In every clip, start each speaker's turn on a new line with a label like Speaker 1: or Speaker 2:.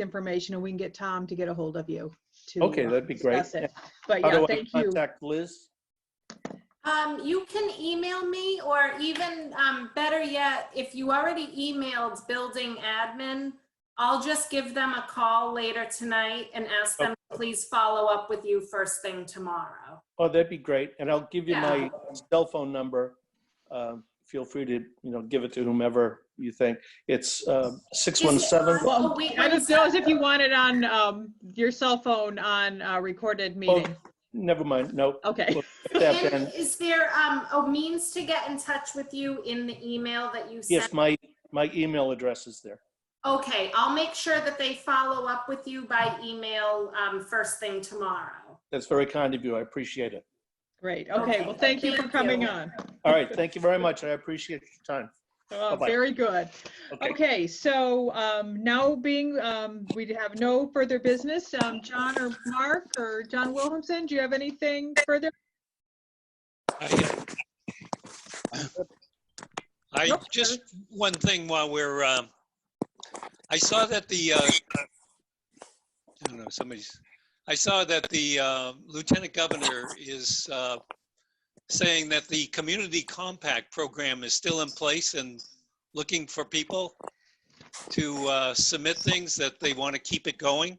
Speaker 1: information and we can get Tom to get a hold of you. to,
Speaker 2: Okay,
Speaker 1: uh,
Speaker 2: that'd be great.
Speaker 1: discuss it. But
Speaker 2: How
Speaker 1: yeah,
Speaker 2: do I
Speaker 1: thank you.
Speaker 2: Contact Liz.
Speaker 3: Um, you can email me or even, um, better yet, if you already emailed building admin, I'll just give them a call later tonight and ask them, to please follow up with you first thing tomorrow.
Speaker 2: Oh, that'd be great. And I'll give you my
Speaker 3: Yeah.
Speaker 2: cell phone number. Um, Feel free to, you know, give it to whomever you think. It's um, 617.
Speaker 3: Oh,
Speaker 1: Well,
Speaker 3: wait,
Speaker 1: I
Speaker 3: one
Speaker 1: don't know if you want it on um, your cell phone on a
Speaker 2: Oh.
Speaker 1: recorded meeting.
Speaker 2: Never mind, no.
Speaker 1: Okay,
Speaker 2: that
Speaker 3: And
Speaker 2: then.
Speaker 3: is there, um, a means to get in touch with you in the email that you
Speaker 2: Yes,
Speaker 3: sent?
Speaker 2: my, my email address is there.
Speaker 3: Okay, I'll make sure that they follow up with you by email, um, first thing tomorrow.
Speaker 2: That's very kind of you. I appreciate it.
Speaker 1: great. Okay, well, thank you for
Speaker 3: Thank
Speaker 1: coming
Speaker 3: you.
Speaker 1: on.
Speaker 2: All right, thank you very much. I appreciate your time.
Speaker 1: Oh,
Speaker 2: Bye-bye.
Speaker 1: Very good.
Speaker 2: Okay,
Speaker 1: Okay, so um, now being, um, we have no further business. Um, John or Mark or John Williamson, do you have anything further?
Speaker 4: I I-
Speaker 1: Nope.
Speaker 4: just one thing while we're, um, I saw that the, uh, I don't know, somebody's, I saw that the uh, Lieutenant Governor is uh, saying that the Community Compact Program is still in place and looking for people to uh, submit things that they want to keep it going.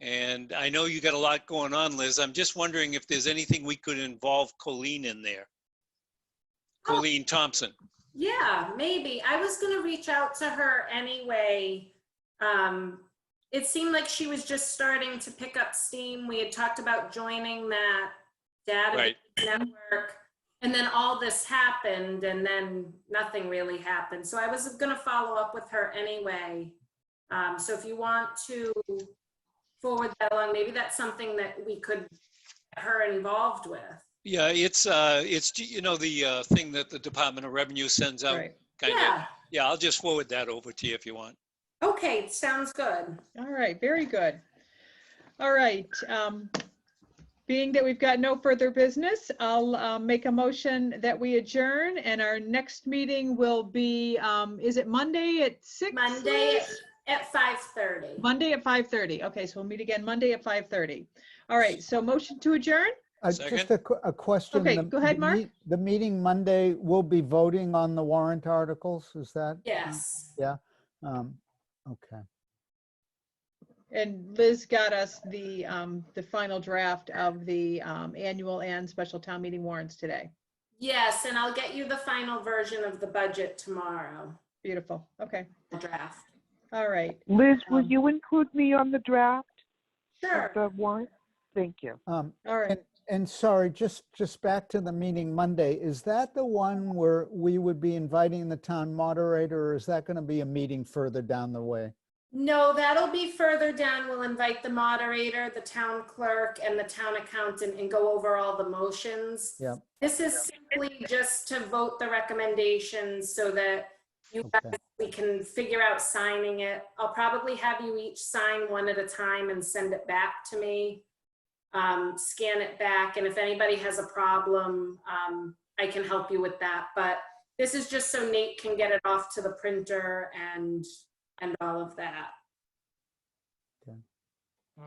Speaker 4: And I know you got a lot going on, Liz. I'm just wondering if there's anything we could involve Colleen in there.
Speaker 3: Oh.
Speaker 4: Colleen Thompson.
Speaker 3: Yeah, maybe. I was gonna reach out to her anyway. Um, it seemed like she was just starting to pick up steam. We had talked about joining that data
Speaker 4: Right.
Speaker 3: network. And then all this happened and then nothing really happened. So I was gonna follow up with her anyway. Um, so if you want to forward that along, maybe that's something that we could get her involved with.
Speaker 4: Yeah, it's, uh, it's, you know, the, uh, thing that the Department of Revenue sends out,
Speaker 1: Right.
Speaker 4: kind of.
Speaker 3: Yeah,
Speaker 4: Yeah, I'll just forward that over to you if you want.
Speaker 3: okay, sounds good.
Speaker 1: All right, very good. All right. um, Being that we've got no further business, I'll uh, make a motion that we adjourn and our next meeting will be, um, is it Monday at six?
Speaker 3: Monday at 5:30.
Speaker 1: Monday at 5:30. Okay, so we'll meet again Monday at 5:30. All right, so motion to adjourn?
Speaker 5: Uh, Just
Speaker 4: Second.
Speaker 5: a, que- a question.
Speaker 1: Okay,
Speaker 5: the-
Speaker 1: go ahead,
Speaker 5: the
Speaker 1: Mark.
Speaker 5: meet- The meeting Monday will be voting on the warrant articles, is that?
Speaker 3: Yes.
Speaker 5: Um, Okay,
Speaker 1: And Liz got us the, um, the final draft of the, um, annual and special town meeting warrants today.
Speaker 3: Yes, and I'll get you the final version of the budget tomorrow,
Speaker 1: Beautiful. Okay,
Speaker 3: the draft.
Speaker 1: all right.
Speaker 6: Liz, will
Speaker 1: Um,
Speaker 6: you include me on the draft of
Speaker 3: Sure.
Speaker 6: the warrant? Thank you.
Speaker 5: um,
Speaker 1: All right.
Speaker 5: and sorry, just, just back to the meeting Monday, is that the one where we would be inviting the town moderator? Or is that going to be a meeting further down the way?
Speaker 3: No, that'll be further down. We'll invite the moderator, the town clerk, and the town accountant and go over all the motions.
Speaker 5: Yep.
Speaker 3: This is simply just to vote the recommendations so that you guys,
Speaker 5: Okay.
Speaker 3: we can figure out signing it. I'll probably have you each sign one at a time and send it back to me. Um, scan it back, and if anybody has a problem, um, I can help you with that. But this is just so Nate can get it off to the printer and, and all of that.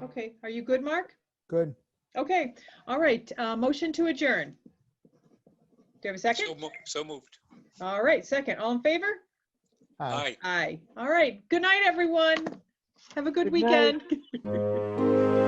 Speaker 1: Okay, are you good, Mark?
Speaker 5: Good.
Speaker 1: Okay, all right, uh, motion to adjourn. Do you have a
Speaker 4: So
Speaker 1: second?
Speaker 4: mo- So moved.
Speaker 1: All right, second. All in favor?
Speaker 5: Hi.
Speaker 4: Aye.
Speaker 1: Aye. All right. Good night, everyone. Have a good
Speaker 6: Good night.
Speaker 1: weekend.